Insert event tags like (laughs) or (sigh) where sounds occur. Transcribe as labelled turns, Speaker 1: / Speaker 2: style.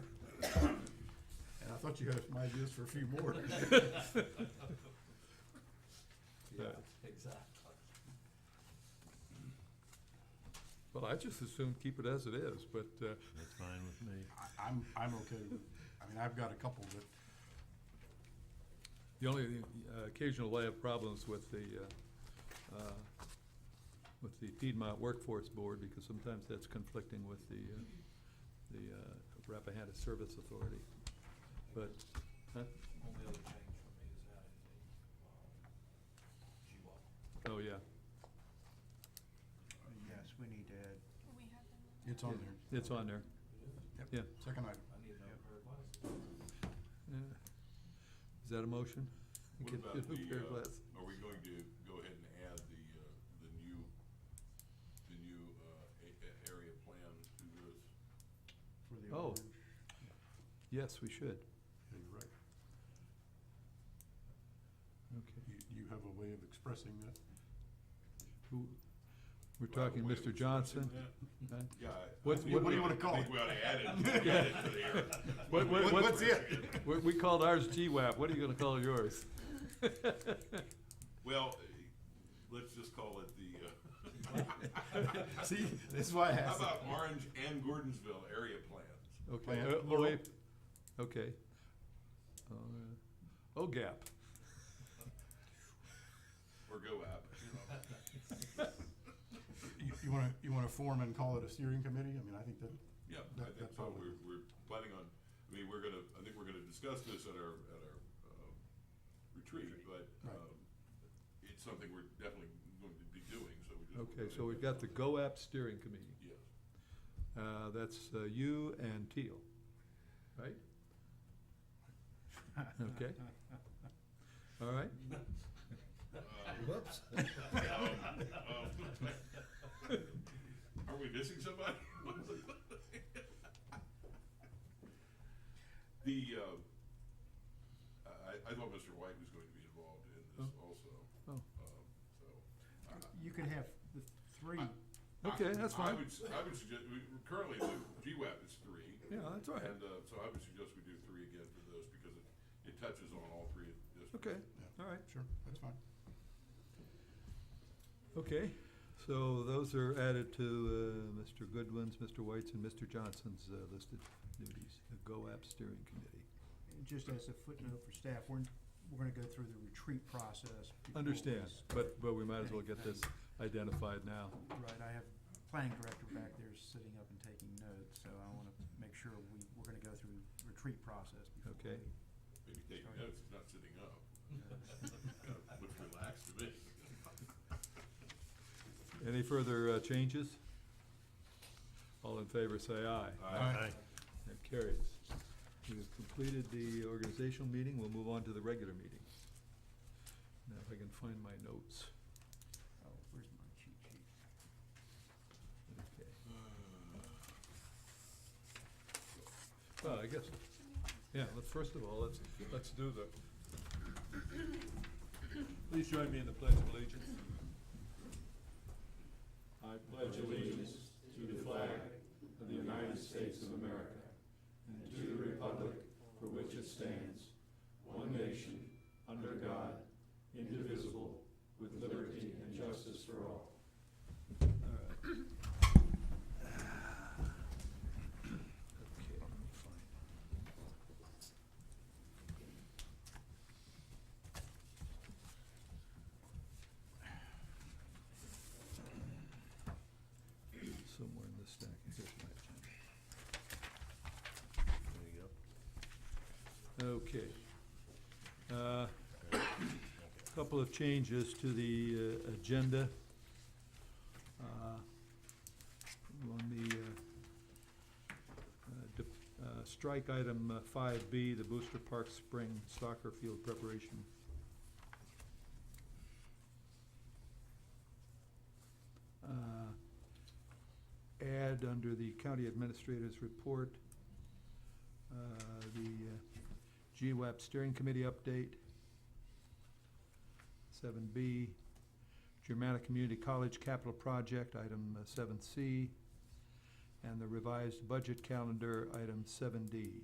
Speaker 1: thought you had some ideas for a few
Speaker 2: (laughs)
Speaker 1: more.
Speaker 3: (laughs) Yeah, exactly.
Speaker 2: Well, I just assume keep it as it is, but, uh,
Speaker 4: That's fine with me.
Speaker 1: I- I'm, I'm okay with, I mean, I've got a couple that,
Speaker 2: the only uh, occasional I have problems with the, uh, uh, with the Piedmont Workforce Board, because sometimes that's conflicting with the, uh, the uh, Rappahannock Service Authority. But, huh?
Speaker 3: Only other change for me is adding the, um, GWAP.
Speaker 2: oh, yeah.
Speaker 5: Yes, we need to add,
Speaker 6: We have them.
Speaker 1: it's on there.
Speaker 2: It's on there,
Speaker 1: Yep.
Speaker 2: yeah.
Speaker 1: Second item.
Speaker 3: I need another
Speaker 5: Yep.
Speaker 3: pair of glasses.
Speaker 2: Yeah. Is that a motion?
Speaker 7: What
Speaker 2: Get
Speaker 7: about
Speaker 2: a new
Speaker 7: the,
Speaker 2: pair of
Speaker 7: uh,
Speaker 2: glasses.
Speaker 7: Are we going to go ahead and add the, uh, the new, the new, uh, a- a- area plan to this?
Speaker 5: for the
Speaker 2: Oh.
Speaker 5: orange.
Speaker 2: Yes, we should.
Speaker 1: Yeah, you're right.
Speaker 2: Okay.
Speaker 1: You, you have a way of expressing that.
Speaker 2: Who, we're
Speaker 7: Do I have a
Speaker 2: talking
Speaker 7: way of
Speaker 2: Mr.
Speaker 7: expressing
Speaker 2: Johnson?
Speaker 7: that?
Speaker 2: huh?
Speaker 7: Yeah. I- I
Speaker 2: What's-
Speaker 7: think
Speaker 2: what do
Speaker 7: we-
Speaker 2: you
Speaker 1: wanna call
Speaker 7: I
Speaker 1: it?
Speaker 7: think we ought to add it, add it to the area.
Speaker 2: (laughs) What- what-
Speaker 1: What-
Speaker 2: what-
Speaker 1: What's it?
Speaker 2: We, we called ours GWAP, what are you gonna call yours?
Speaker 7: Well, eh, let's just call it the, uh.
Speaker 1: (laughs) See, this is why I
Speaker 7: How
Speaker 1: asked.
Speaker 7: about Orange and Gordonsville area plans?
Speaker 2: Okay,
Speaker 1: Plan,
Speaker 2: uh, oh,
Speaker 1: plural.
Speaker 2: wait, okay. Uh, OGAP,
Speaker 7: Or go app, you know.
Speaker 1: You, you wanna, you wanna form and call it a steering committee? I mean, I think that,
Speaker 7: Yeah, I
Speaker 1: That-
Speaker 7: think
Speaker 1: that's
Speaker 7: so,
Speaker 1: all.
Speaker 7: we're, we're planning on, I mean, we're gonna, I think we're gonna discuss this at our, at our, um, retreat, but,
Speaker 1: Right.
Speaker 7: um, it's something we're definitely going to be doing, so we just.
Speaker 2: okay, so we've got the GOAP steering committee,
Speaker 7: Yes,
Speaker 2: uh, that's uh, you and Teal, right?
Speaker 3: (laughs)
Speaker 2: Okay. All right, Uh, (laughs)
Speaker 4: Whoops.
Speaker 7: are we missing somebody? The, uh, I, I thought Mr. White was going to be involved in this also,
Speaker 2: oh,
Speaker 7: um, so. I-
Speaker 5: You can have the three,
Speaker 2: okay,
Speaker 7: I-
Speaker 2: that's
Speaker 7: I
Speaker 2: fine,
Speaker 7: would, s- I would suggest, we, currently, the GWAP is three.
Speaker 2: yeah, that's all right,
Speaker 7: And, uh, so I would suggest we do three again for those, because it, it touches on all three districts.
Speaker 2: okay, all right.
Speaker 1: sure, that's fine.
Speaker 2: Okay, so those are added to uh, Mr. Goodwin's, Mr. White's, and Mr. Johnson's uh, listed duties, the GOAP Steering Committee.
Speaker 5: just as a footnote for staff, we're, we're gonna go through the retreat process. before
Speaker 2: Understand,
Speaker 5: this.
Speaker 2: but, but we might as well get this identified now.
Speaker 5: Right, I have planning director back there sitting up and taking notes, so I wanna make sure we, we're gonna go through retreat process before
Speaker 2: Okay.
Speaker 5: we-
Speaker 7: Maybe take
Speaker 5: Sorry.
Speaker 7: notes, not sitting up.
Speaker 3: (laughs)
Speaker 7: Looks relaxed to me.
Speaker 2: Any further uh, changes? All in favor, say aye.
Speaker 1: Aye.
Speaker 2: That carries. We have completed the organizational meeting, we'll move on to the regular meeting. Now, if I can find my notes.
Speaker 5: Oh, where's my cheat sheet?
Speaker 2: Okay. Well, I guess, yeah, let's, first of all, let's, let's do the. Please join me in the pledge of allegiance. I pledge allegiance to the flag of the United States of America and to the republic for which it stands, one nation, under God, indivisible, with liberty and justice for all. Okay, let me find. Somewhere in the stack, here's my agenda.
Speaker 4: There you go.
Speaker 2: Okay. Uh, Couple of changes to the uh, agenda. Uh, On the, uh, uh, de- uh, strike item five B, the Booster Park Spring Soccer Field Preparation. Uh, Add under the County Administrator's Report, uh, the uh, GWAP E Steering Committee update. Seven B, Germana Community College Capital Project, item uh, seven C, and the revised budget calendar, item seven D.